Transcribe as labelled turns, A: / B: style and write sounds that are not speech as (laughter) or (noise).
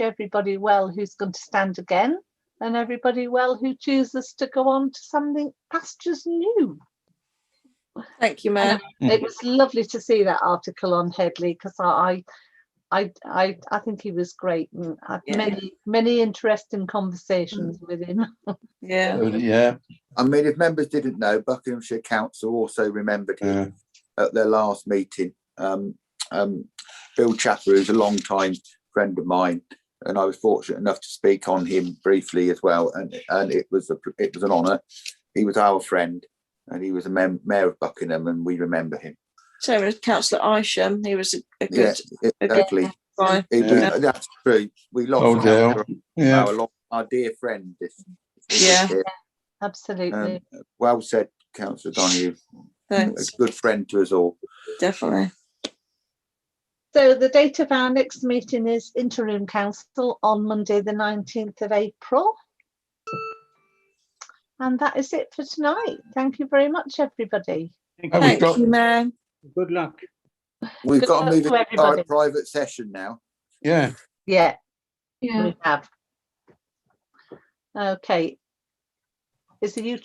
A: everybody well who's going to stand again and everybody well who chooses to go on to something pastures new.
B: Thank you, Mayor.
C: Mm.
A: It was lovely to see that article on Headley because I, I, I, I think he was great and had
B: Yeah.
A: many, many interesting conversations with him. (laughs)
B: Yeah.
C: Oh, Yeah,
D: I mean, if members didn't know, Buckinghamshire Council also remembered him
C: yeah,
D: at their last meeting. Um, um, Bill Chapper, who's a long time friend of mine, and I was fortunate enough to speak on him briefly as well, and and it was a, it was an honour. He was our friend, and he was a mem- mayor of Buckingham, and we remember him.
B: So was Councillor Isham. He was a, a
D: Yeah,
B: good
D: it-
B: Okay.
D: exactly.
B: guy.
D: It- we-
C: Yeah.
D: That's true. We lost
C: Oh,
D: our,
C: yeah.
D: our, lo- our dear friend. This,
B: Yeah.
A: Absolutely.
D: Um, well said, Councillor Donahue. A
B: Thanks.
D: good friend to us all.
B: Definitely.
A: So the date of our next meeting is interim council on Monday, the 19th of April. And that is it for tonight. Thank you very much, everybody.
E: Thank
C: Have we
E: you.
B: Thank
C: got-
B: you, Mayor.
E: Good luck.
D: We've
A: Good
D: got to
A: luck
D: move
A: to
D: into our
A: everybody.
D: private session now.
C: Yeah,
A: Yeah,
F: Yeah.
A: we have. Okay. Is the